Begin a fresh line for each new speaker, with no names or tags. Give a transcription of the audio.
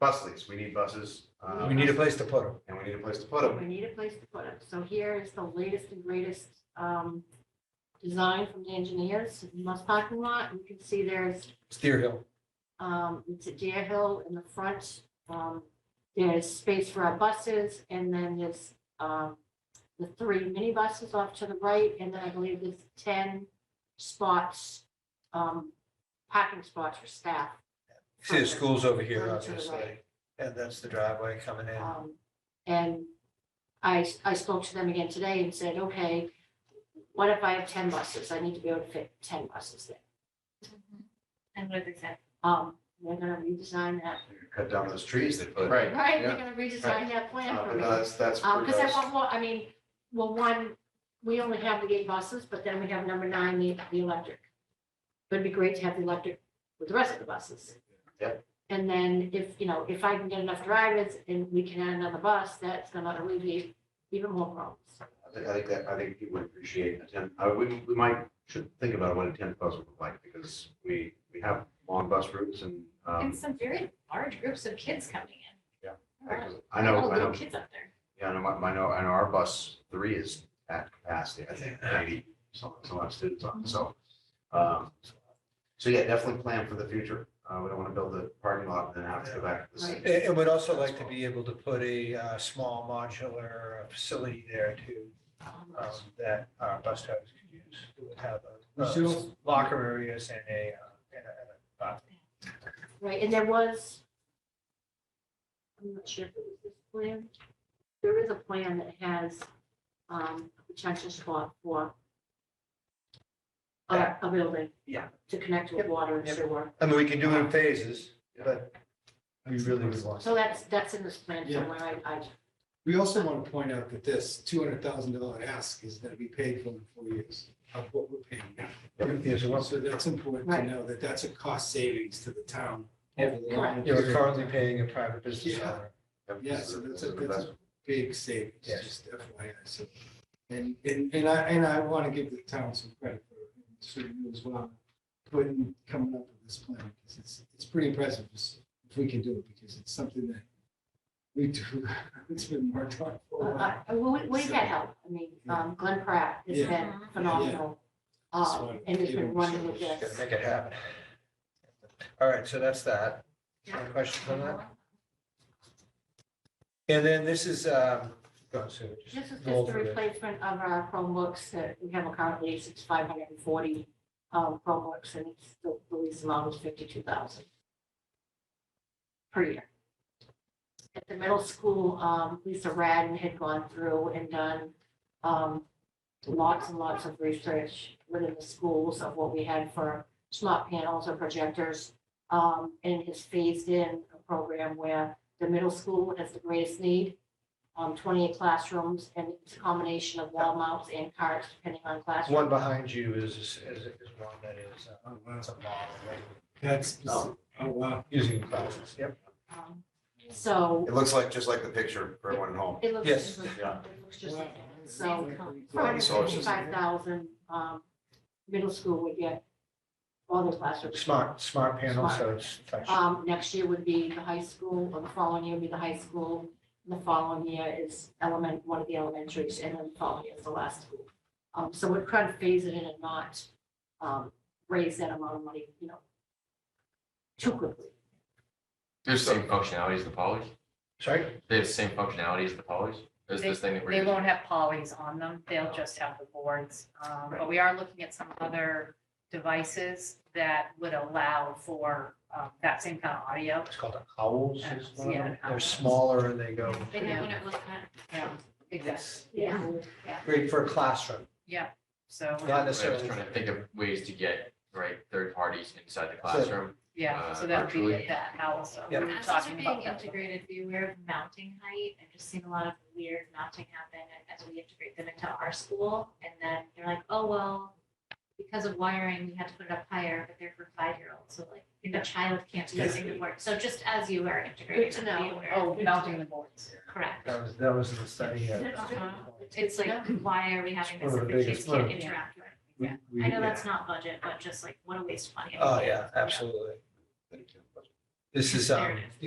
bus lease. We need buses. uh,
We need a place to put them.
And we need a place to put them.
We need a place to put it. So here is the latest and greatest um, design from the engineers, Must parking lot. You can see there's,
Steer Hill.
um, it's a deer hill in the front. Um, There's space for our buses and then there's um, the three minibuses off to the right. And then I believe there's 10 spots, um, parking spots for staff.
See the school's over here,
Further to the
obviously,
right.
and that's the driveway coming in.
Um, And I, I spoke to them again today and said, okay, what if I have ten buses? I need to be able to fit ten buses there.
And what is that?
Um, they're gonna redesign that,
Cut down those trees they put.
Right.
right? They're
Yeah.
gonna redesign that plan
Uh,
for
but
me.
That's, that's.
Um,
for
cause I
those-
want more, I mean, well, one, we only have the eight buses, but then we have number nine, the, the electric. But it'd be great to have the electric with the rest of the buses.
Yep.
And then if, you know, if I can get enough drivers and we can add another bus, that's gonna alleviate even more problems.
I think, I think that, I think people would appreciate a ten, uh, we, we might, should think about what a ten bus would look like, because we, we have long bus routes and, um,
And some very large groups of kids coming in.
because I know,
All
I
little
know,
kids up there.
yeah, I know, my, my- I know, I know our bus three is at capacity, I think, ninety, some, some odd students on, it, so. Um, so yeah, definitely plan for the future, uh, we don't want to build a parking lot and then have to go back to the
And,
city.
and we'd also like to be able to put a, uh, small modular uh, facility there too,
Um,
um, that our bus drivers could use. It would have a-
Sure.
uh, locker areas and a, uh, and a, and a bathroom.
Right, and there was, I'm not sure if it was this plan. There is a plan that has um, a potential spot for a,
Yeah.
a building.
Yeah.
To connect with water and
Yep.
sewer.
I mean, we can do it in phases, but we really would want.
So that's, that's in this plan
Yeah.
somewhere. I, I,
We also want to point out that this two hundred thousand dollar ask is going to be paid for in four years of what we're paying now.
Yes, well,
So that's important to
Right.
know that that's a cost savings to the town.
Yeah.
over the long
You're
period.
currently paying a private business
Yeah.
owner.
Yep,
Yeah,
this is
so
a-
that's
this
a,
is an
that's
investment.
a big savings,
Yes.
just FYI, so. And, and, and I, and I want to give the town some credit for, it, and certainly you as well, putting, coming up with this plan, because it's, it's pretty impressive, just if we can do it, because it's something that we do, it's been worked on
Oh,
for a while.
I, I- we, we've had help. I mean, um, Glenn Pratt has
Yeah.
been
Mhm.
phenomenal.
Just
um,
wanted to
And he's
give
been
him
running with
some-
Gotta
this.
make it happen. All right, so that's that. Any questions on that? And then this is, um, go on, Sue.
This is
go
just a
over it.
replacement of our Chromebooks that we have currently, it's five hundred and forty um, Chromebooks, and it's the the lease amount is fifty-two thousand per year. At the middle school, um, Lisa Radden had gone through and done um, lots and lots of research within the schools of what we had for smart panels or projectors, um, and has phased in a program where the middle school has the greatest need um, twenty-eight classrooms, and it's a combination of wall mounts and carts, depending on classroom.
One behind you is, is, is one that is, uh,
Oh, wow.
it's a model, right?
That's, oh, wow.
using thousands, yep.
Um, So
It looks like, just like the picture for everyone at home.
it looks.
Yes.
it looks-
Yeah.
it looks just
Wow.
like that. So four
Right,
hundred
so it's just-
fifty-five thousand, um, middle school would get all the classrooms.
Smart, smart panel, so it's touch.
Um, next year would be the high school, or the following year would be the high school, and the following year is element, one of the elementaries, and then the following year is the last school. Um, so we're trying to phase it in and not, um, raise that amount of money, you know, too quickly.
They have the same functionality as the polys?
Sorry?
They have the same functionality as the polys? Is this thing that we're
They
using?
won't have polys on them. They'll just have the boards. Um, But we are looking at some other devices that would allow for um, that same kind of audio.
It's called owls. is one of
Yeah,
them. They're
owls.
smaller and they go,
They have one
at
Yeah, exactly.
Yeah.
great for a classroom,
Yeah, so,
not
I was
necessarily.
trying to think of ways to get, right, third parties inside the
So-
classroom.
yeah, so
Uh,
that would be
virtually.
that also.
Yeah.
We were
As those are
talking
being
about that.
integrated, be aware of mounting height. I've just seen a lot of weird mounting happen as we integrate them into our school. And then they're like, oh, well, because of wiring, we had to put it up higher, but they're for five-year-olds. So like, if a child can't do
Yeah.
the work. So just as you are
Good
integrating,
to
them, be
know.
aware.
Oh, mounting the boards.
Correct.
That was, that was the study. uh,
Uh-huh. It's like, why are we having
It's
this
one
if
of the
the kids
biggest- one of
can't interact with it?
we- we-
I know that's not budget, but just like, what a waste of money.
Oh, yeah, absolutely. This is, um,
There it is.